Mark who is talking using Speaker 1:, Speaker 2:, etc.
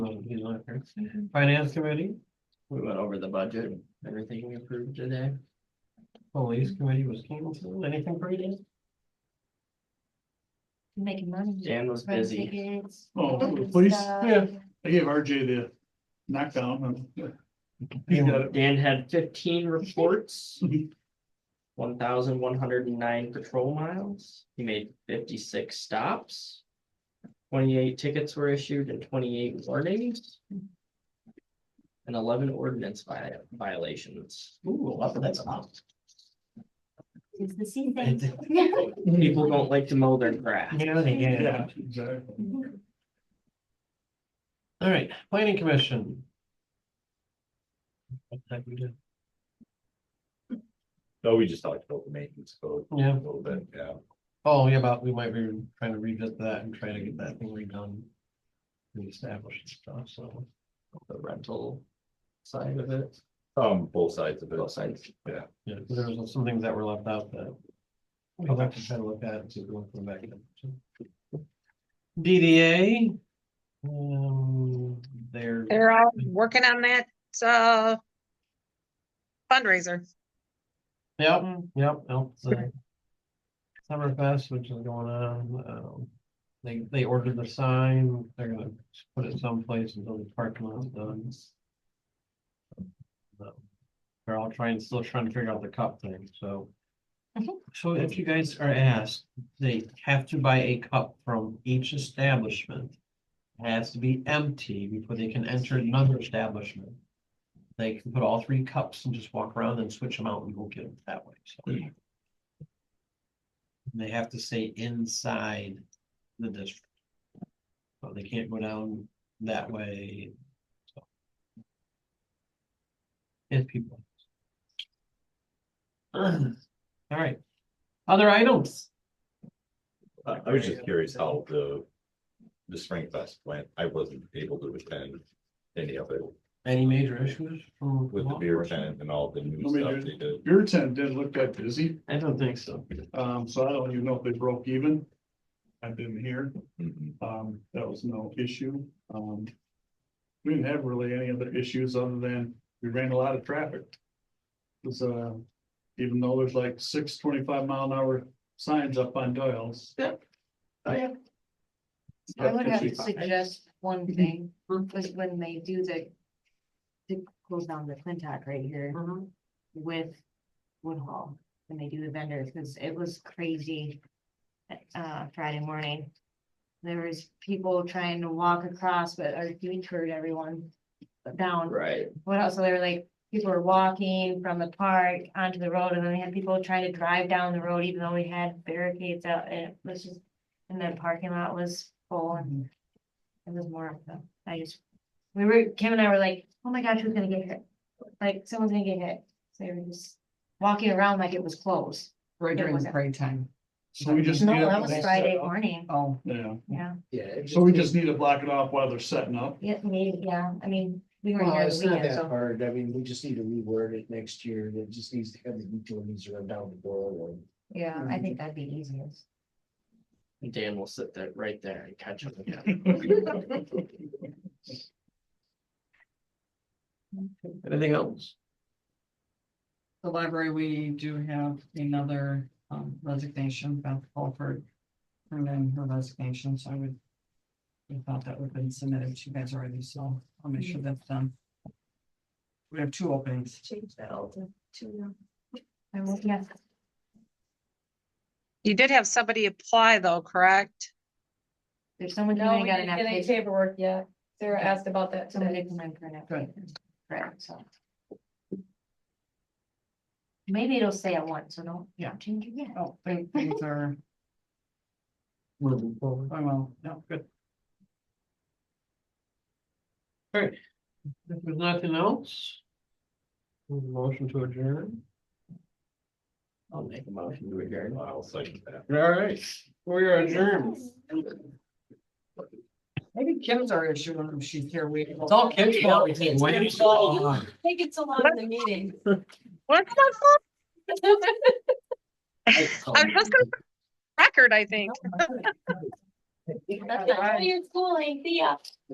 Speaker 1: liquor. Mm-hmm. Finance committee, we went over the budget, everything we approved today. Police committee was canceled, anything for you? Dan?
Speaker 2: Making money.
Speaker 1: Dan was
Speaker 2: Rent
Speaker 1: busy.
Speaker 2: tickets,
Speaker 3: Oh,
Speaker 2: food
Speaker 3: the police?
Speaker 2: stuff.
Speaker 3: Yeah. I gave RJ the knockdown. and- He got it.
Speaker 1: Dan had fifteen reports. One thousand one hundred and nine patrol miles, he made fifty-six stops. Twenty-eight tickets were issued and twenty-eight warnings. And eleven ordinance vi- violations. Ooh, that's awesome.
Speaker 2: It's the same
Speaker 4: It's-
Speaker 2: thing.
Speaker 1: People don't like to mow their grass.
Speaker 4: Yeah, they get it.
Speaker 3: Yeah, exactly.
Speaker 4: All right, planning commission. What type we do?
Speaker 5: No, Oh, we just talked about the maintenance code a
Speaker 4: Yeah,
Speaker 5: little bit, yeah.
Speaker 4: oh, yeah, but we might be trying to revisit that and try to get that thing redone. Reestablished stuff, so.
Speaker 1: The rental side of it,
Speaker 5: Um, both sides of it.
Speaker 1: both sides.
Speaker 4: Yeah, 'cause there was some things that were left out that. I'll have to try to look at and see if we want to come back. in. DDA. Um, they're,
Speaker 6: They're all working on that, uh, fundraiser.
Speaker 4: yep, yep, that's, uh, Summerfest, which is going on, um, they, they ordered the sign, they're gonna put it someplace until the parking lot's done. So, They're all trying, still trying to figure out the cup thing, so.
Speaker 2: Mhm.
Speaker 4: So if you guys are asked, they have to buy a cup from each establishment. It Has to be empty before they can enter another establishment. They can put all three cups and just walk around and switch them out and go get them that way, so. And They have to stay inside the district. So they can't go down that way. so. If people. All right. Other items?
Speaker 5: I I was just curious how the, the Spring Fest went. I wasn't able to attend any of it
Speaker 4: Any major issues from?
Speaker 5: with the beer tent and all the new
Speaker 3: Nobody
Speaker 5: stuff
Speaker 3: did.
Speaker 5: they did.
Speaker 3: Your tent didn't look that busy,
Speaker 4: I don't think so.
Speaker 3: um, so I don't even know if they broke even. I've been here,
Speaker 5: Mhm.
Speaker 3: um, that was no issue, um. We didn't have really any other issues other than we ran a lot of traffic. Cause, uh, even though there's like six 25 mile an hour signs up on Doyle's.
Speaker 1: Yep. Oh, yeah.
Speaker 2: I would have to
Speaker 3: That's what she-
Speaker 2: suggest one
Speaker 3: Mm-hmm.
Speaker 2: thing, was when they do the. It goes down the Clintock right here with Woodhall, when they do the vendors, because it was crazy. Uh, Friday morning. There was people trying to walk across, but our detoured everyone down.
Speaker 1: Right.
Speaker 2: What else? So they were like, people were walking from the park onto the road and then they had people trying to drive down the road, even though we had barricades out and it was just. And the parking lot was full and it was more of them. I just, we were, Kim and I were like, oh my gosh, who's gonna get hit? Like, someone's gonna get hit. So they were just walking around like it was closed.
Speaker 7: Right
Speaker 2: It
Speaker 7: during the
Speaker 2: wasn't.
Speaker 7: parade time.
Speaker 3: So we just.
Speaker 2: No,
Speaker 3: need a-
Speaker 2: that was Friday morning.
Speaker 7: Oh,
Speaker 3: Yeah,
Speaker 2: Yeah,
Speaker 1: Yeah.
Speaker 3: so we just need to block it off while they're setting up.
Speaker 2: yeah, maybe, yeah. I mean, we were
Speaker 8: Well,
Speaker 2: here.
Speaker 8: it's not
Speaker 2: weekend,
Speaker 8: that
Speaker 2: so
Speaker 8: hard, I mean, we just need to reword it next year, it just needs to have the utilities run down the door
Speaker 2: Yeah, I think that'd be easiest.
Speaker 1: Dan will sit there, right there and catch him again. Anything else?
Speaker 7: the library, we do have another um, resignation, Beth Fulford. And then her resignation, so I would. I thought that would have been submitted to you guys already, so I'll make sure that's done. We have two openings.
Speaker 2: Change that all to two. I will, yeah.
Speaker 6: You did have somebody apply though, correct?
Speaker 2: There's someone who
Speaker 9: No, we
Speaker 2: got an
Speaker 9: didn't get any
Speaker 2: application.
Speaker 9: paperwork yet. Sarah
Speaker 2: Okay.
Speaker 9: asked about that
Speaker 2: Someone
Speaker 9: today.
Speaker 2: did come in for an application. Correct, so. Maybe it'll say at once, so don't,
Speaker 7: Yeah.
Speaker 2: don't change it yet.
Speaker 7: Oh, thank- things are,
Speaker 8: Moving forward.
Speaker 7: oh, well, no, good.
Speaker 4: If there's nothing else. Motion to adjourn.
Speaker 1: I'll make a motion to adjourn.
Speaker 5: I'll second that.
Speaker 4: All right, we are adjourned.
Speaker 7: Maybe Kim's our issue when she's here. We.
Speaker 4: It's all kids' fault. we can't wait.
Speaker 7: Oh,
Speaker 9: think it's a lot of the meeting.
Speaker 6: What's that for? I was just gonna, record, I think.
Speaker 9: That's why you're schooling, see ya.